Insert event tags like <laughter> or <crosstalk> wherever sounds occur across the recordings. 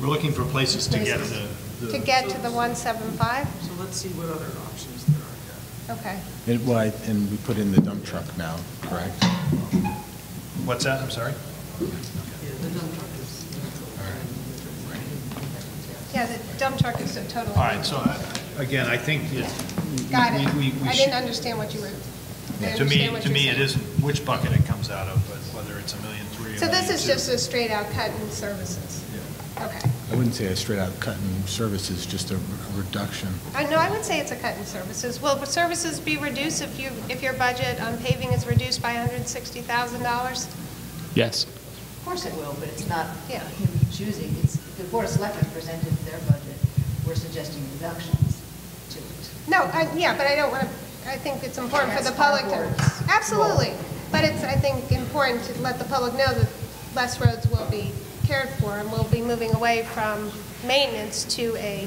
We're looking for places to get Places. the. the- To get to the 175? So let's see what other options there are here. Okay. And why, and we put in the dump truck now, correct? What's that, I'm sorry? Yeah, the dump truck is. Yeah, the dump truck is a total. All right, so I- again, I think. it- we- Oh. Got it. we- we- we I should- didn't understand what you were, I To me, understand what to you're me, it saying. isn't which bucket it comes out of, but whether it's a million three or. So this is $1,000,002. just a straight out cut in services? Okay. I wouldn't say a straight-out cut in services, just a a reduction. I know, Uh, I would say it's a cut in services. Will the services be reduced if you, if your budget on paving is reduced by $160,000? Yes. Of course it It will. will, but it's not Yeah. him choosing, it's, the Board of Selectmen presented their budget, we're suggesting reductions to it. No, I, yeah, but I don't want to, I think it's important for the That's our public to. board's role. Absolutely. But it's, I think, important to let the public know that less roads will be cared for and we'll be moving away from maintenance to a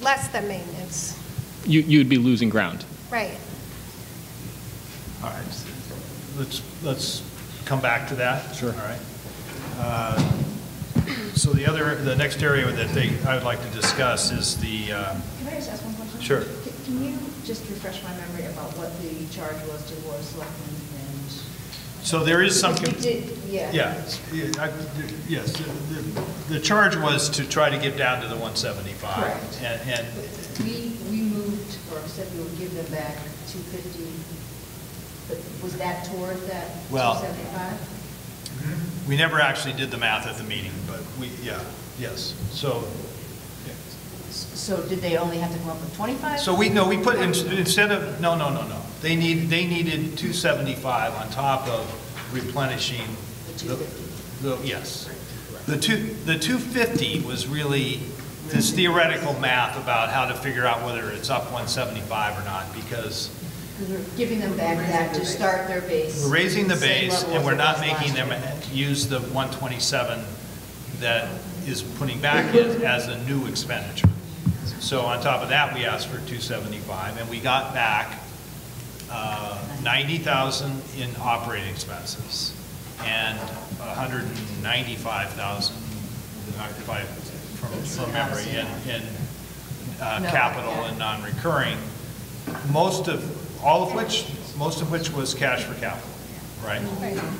less than maintenance. You, you'd be losing ground. Right. All right, let's, let's come back to that. Sure. All right. Uh, So the other, the next area that they, I would like to discuss is the, uh, Can I just ask one question? Sure. Can- Can you just refresh my memory about what the charge was to the Board of Selectmen and? so there is some. We did, yeah. Yeah, I- yes, the- the charge was to try to get down to the 175. Correct. And, and We, we moved, or said we would give them back 250, but was that toward that Well- 275? we never actually did the math at the meeting, but we, yeah, yes. So So did they only have to come up with 25? So we, no, we put, in- instead of, no, no, no, no. They need, they needed 275 on top of replenishing. The the- 250. The, yes. The two, the 250 was really this theoretical math about how to figure out whether it's up 175 or not, because Because we're giving them back that to start their base. we're raising the same base level and as we're it not was last making them year. use the 127 that is putting back in as a new expenditure. So on top of that, we asked for 275 and we got back uh, 90,000 in operating expenses and 195,000, if I, from from memory, in, in uh, No, capital yeah. and non-recurring, most of, all of which, most of which was cash for capital, right? Right. Well,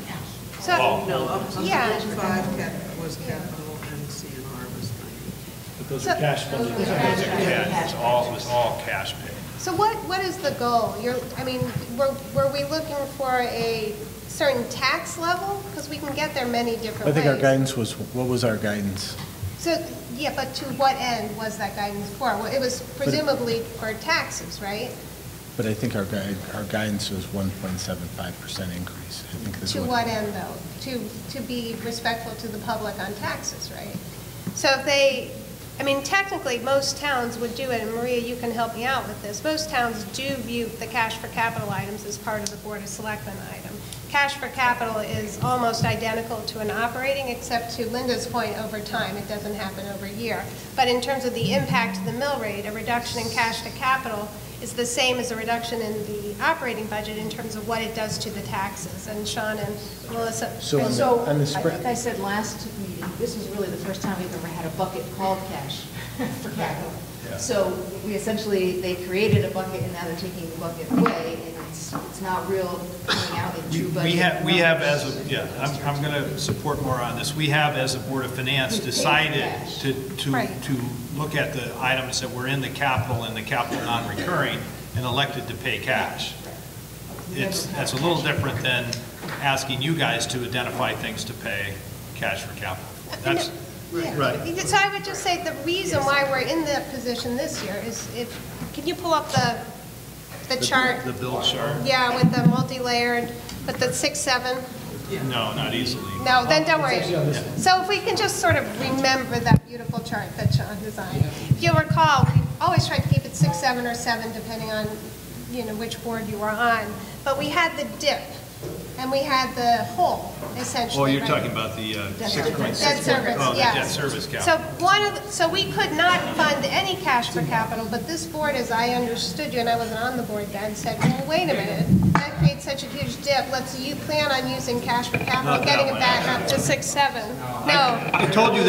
So, No, up to Yeah. 45 cap- was capital and CNR was 90. But those are So- cash funded. Those are cash funded. it's all, it's all cash paid. so what, what is the goal? You're, I mean, were, were we looking for a certain tax level? Because we can get there many different ways. I think our guidance was, what was our guidance? So, yeah, but to what end was that guidance for? Well, it was presumably for taxes, right? But I think our guide, our guidance was 1.75% increase. I think this To was- what end, though? To, to be respectful to the public on taxes, right? So if they, I mean, technically, most towns would do it, and Maria, you can help me out with this. Most towns do view the cash for capital items as part of the Board of Selectmen item. Cash for capital is almost identical to an operating, except to Linda's point, over time, it doesn't happen over a year. But in terms of the impact to the mill rate, a reduction in cash to capital is the same as a reduction in the operating budget in terms of what it does to the taxes. And Sean and Melissa. So on the- So, I on the spread- think I said last meeting, this is really the first time we've ever had a bucket called cash <laughs> for capital. Yeah. So we essentially, they created a bucket and now they're taking the bucket away and it's, it's not real coming out in We true budget. we have, we have as, a numbers. yeah, I'm, I'm going to support more on this. We have, as a Board of Finance, We paid decided cash. to, to, Right. to look at the items that were in the capital and the capital non-recurring and elected to pay cash. It's, that's a little different than asking you guys to identify things to pay cash for capital. That's, Yeah. Right. So I would just say the reason why we're in that position this year is if, can you pull up the, the chart? The bill chart? Yeah, with the multi-layered, with the six, seven? No, not easily. No, then don't worry. So if we can just sort of remember that beautiful chart that Sean designed. If you'll recall, we always tried to keep it six, seven, or seven, depending on, you know, which board you were on. But we had the dip, and we had the hole, essentially. Oh, you're right? talking about the uh, 6.6. Debt service. Debt service, Oh, the yes. debt service cap. So one of, the- so we could not fund any cash for capital, but this board, as I understood you, and I wasn't on the board then, said, well, wait a minute, that creates such a huge dip, let's, you plan on using cash for capital, Not that getting it one. back up to six, seven? No. I told you